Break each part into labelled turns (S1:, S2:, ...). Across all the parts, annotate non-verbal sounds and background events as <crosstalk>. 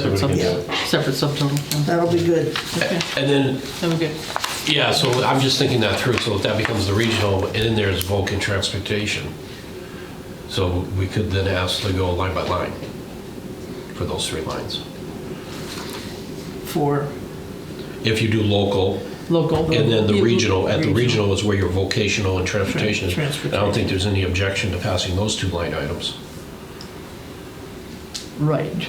S1: separate
S2: we
S1: sub,
S2: can
S1: separate subtotal. yeah.
S3: That'll be good.
S1: Okay,
S2: And then,
S1: that'll be good.
S2: yeah, so I'm just thinking that through, so if that becomes the regional, and then there's Vulcan transportation. So we could then ask to go line by line for those three lines.
S1: For
S2: If you do local,
S1: local.
S2: and then the
S1: Yeah,
S2: regional, at the regional is where your vocational and transportation is.
S1: Transportation.
S2: I don't think there's any objection to passing those two line items.
S1: Right.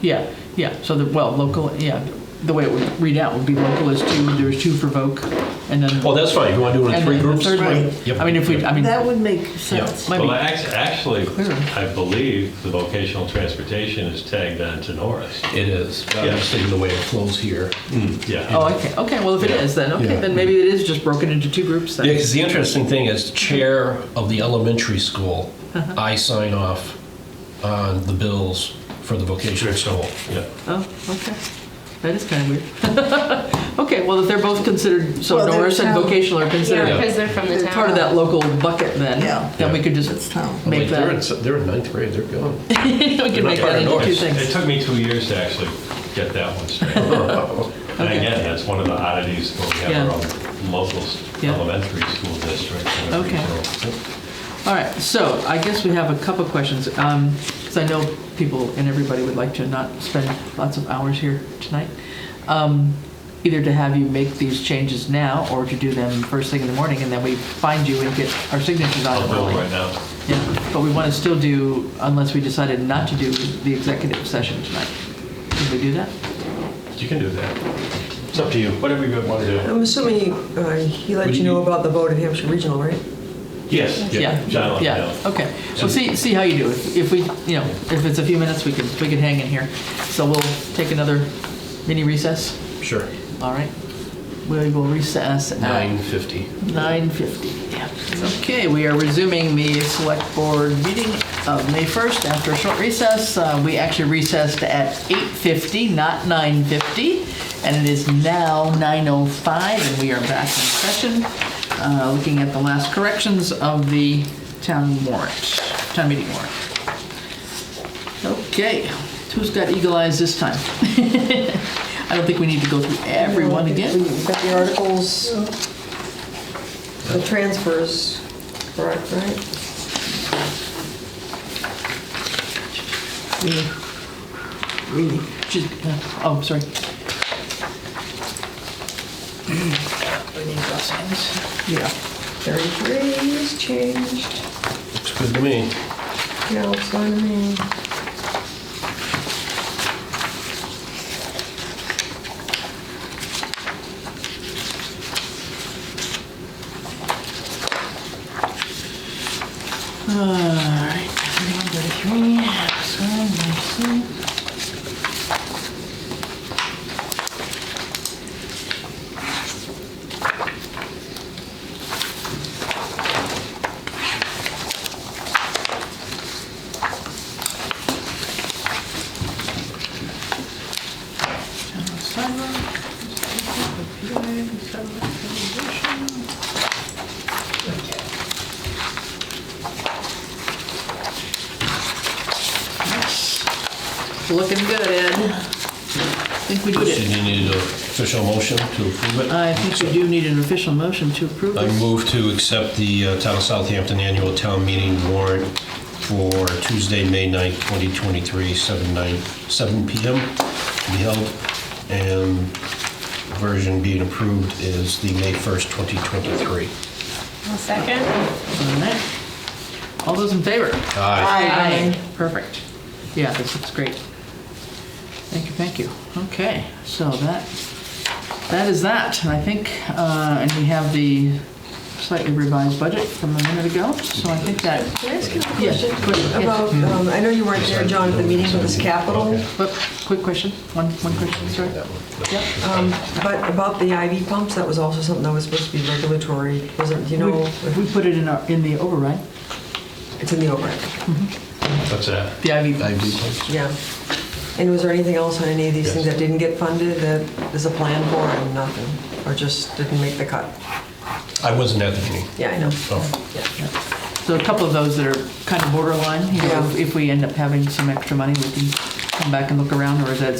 S1: Yeah, yeah. So the, well, local, yeah. The way it would read out would be local is two, there's two for voc, and then.
S2: Well, that's fine, you want to do it in
S1: and
S2: Oh, three
S1: then the
S2: groups?
S1: third one.
S2: Yep.
S1: I mean, if we, I mean,
S3: That would make
S2: Yeah.
S3: sense.
S1: might
S4: Well,
S1: be-
S4: act- actually,
S1: Clear.
S4: I believe the vocational transportation is tagged on to Norris.
S2: It is, I'm
S4: Yeah.
S2: just thinking the way it flows here.
S4: Yeah.
S1: Oh, okay, okay, well, if it
S2: Yeah.
S1: is, then, okay,
S2: Yeah.
S1: then maybe it is just broken into two groups
S2: Yeah,
S1: then.
S2: because the interesting thing is, chair of the elementary school,
S1: Uh-huh.
S2: I sign off on the bills for the vocational school.
S4: Yeah.
S1: Oh, okay, that is kind of weird. <laughs> Okay, well, if they're both considered, so
S3: Well, they're
S1: Norris and
S3: town-
S1: vocational are
S5: Yeah,
S1: considered
S5: because they're from the town.
S1: part of that local bucket then,
S3: Yeah.
S1: then we could
S3: It's
S1: just,
S3: town.
S2: I'm
S1: Make
S2: like, they're in,
S1: that-
S2: they're in ninth grade, they're gone.
S1: <laughs> we could
S2: not
S1: make
S2: part
S1: that
S2: of
S1: into two
S2: Norris.
S4: It
S1: things.
S4: took me two years to actually get that
S1: <laughs>
S4: one straight. And again, that's one of the oddities when we have our own local s-
S1: Yeah.
S4: elementary school district. and
S1: Okay.
S4: regional.
S1: All right, so I guess we have a couple questions, because I know people and everybody would like to not spend lots of hours here tonight. Um, Either to have you make these changes now, or to do them first thing in the morning, and then we find you and get our signatures on
S4: I'll
S1: it
S4: go
S1: early.
S4: right now.
S1: Yeah, but we want to still do, unless we decided not to do the executive session tonight. Can we do that?
S4: You can do that.
S2: It's up to you.
S4: Whatever you want to do.
S6: I'm assuming uh, he let you know about the vote in Hampshire Regional, right?
S4: Yes.
S1: Yeah.
S4: John, let me
S1: Yeah,
S4: know.
S1: okay. Well, see, see how you do. If if we, you know, if it's a few minutes, we can, we can hang in here. So we'll take another mini recess,
S2: Sure,
S1: all right? We will recess
S2: nine
S1: at
S2: fifty.
S1: 9:50. Okay, we are resuming the select board meeting of May 1st after a short recess. Uh, We actually recessed at 8:50, not 9:50, and it is now 9:05, and we are back in session, uh, looking at the last corrections of the town warrant, town meeting warrant. Okay, who's got eagle eyes this time? <laughs> I don't think we need to go through everyone again.
S6: We've got the articles, the transfers, correct, right?
S1: She's, uh, oh, sorry. We need those things.
S6: Yeah. 33 is changed.
S2: Looks good to me.
S6: Yeah, it's fine to me.
S1: Alright, one, thirty-three, so, let's see. General sidewalk, PI, sidewalk stabilization. Looking good, Ed. I think we did
S2: So
S1: it.
S2: you need an official motion to approve it?
S1: I think we do need an official motion to approve
S2: I
S1: this.
S2: move to accept the uh, Town of Southampton Annual Town Meeting warrant for Tuesday, May 9th, 2023, 7 nine- 7 PM to be held, and version being approved is the May 1st, 2023.
S5: One second.
S1: All right. All those in favor?
S2: Aye.
S1: Aye. Perfect. Yeah, this looks great. Thank you, thank you. Okay, so that, that is that, and I think, uh, and we have the slightly revised budget from a minute ago, so I think that,
S6: Can I ask you a
S1: Yes,
S6: question?
S1: quick, yes.
S6: About, um, I know you weren't there, John, at the meeting with this capital,
S1: but, quick question, one, one question, sorry. Yep.
S6: um, but about the IV pumps, that was also something that was supposed to be regulatory, wasn't, do you know? if
S1: We we put it in our, in the override,
S6: It's in the override.
S4: What's that?
S1: the IV.
S2: I do.
S6: Yeah. And was there anything else on any of these
S4: Yes.
S6: things that didn't get funded that is a plan for and nothing? Or just didn't make the cut?
S2: I wasn't at the meeting.
S6: Yeah, I know.
S2: Oh,
S6: Yeah.
S1: So a couple of those that are kind of borderline, you know,
S6: Yeah.
S1: if- if we end up having some extra money, we can come back and look around, or is that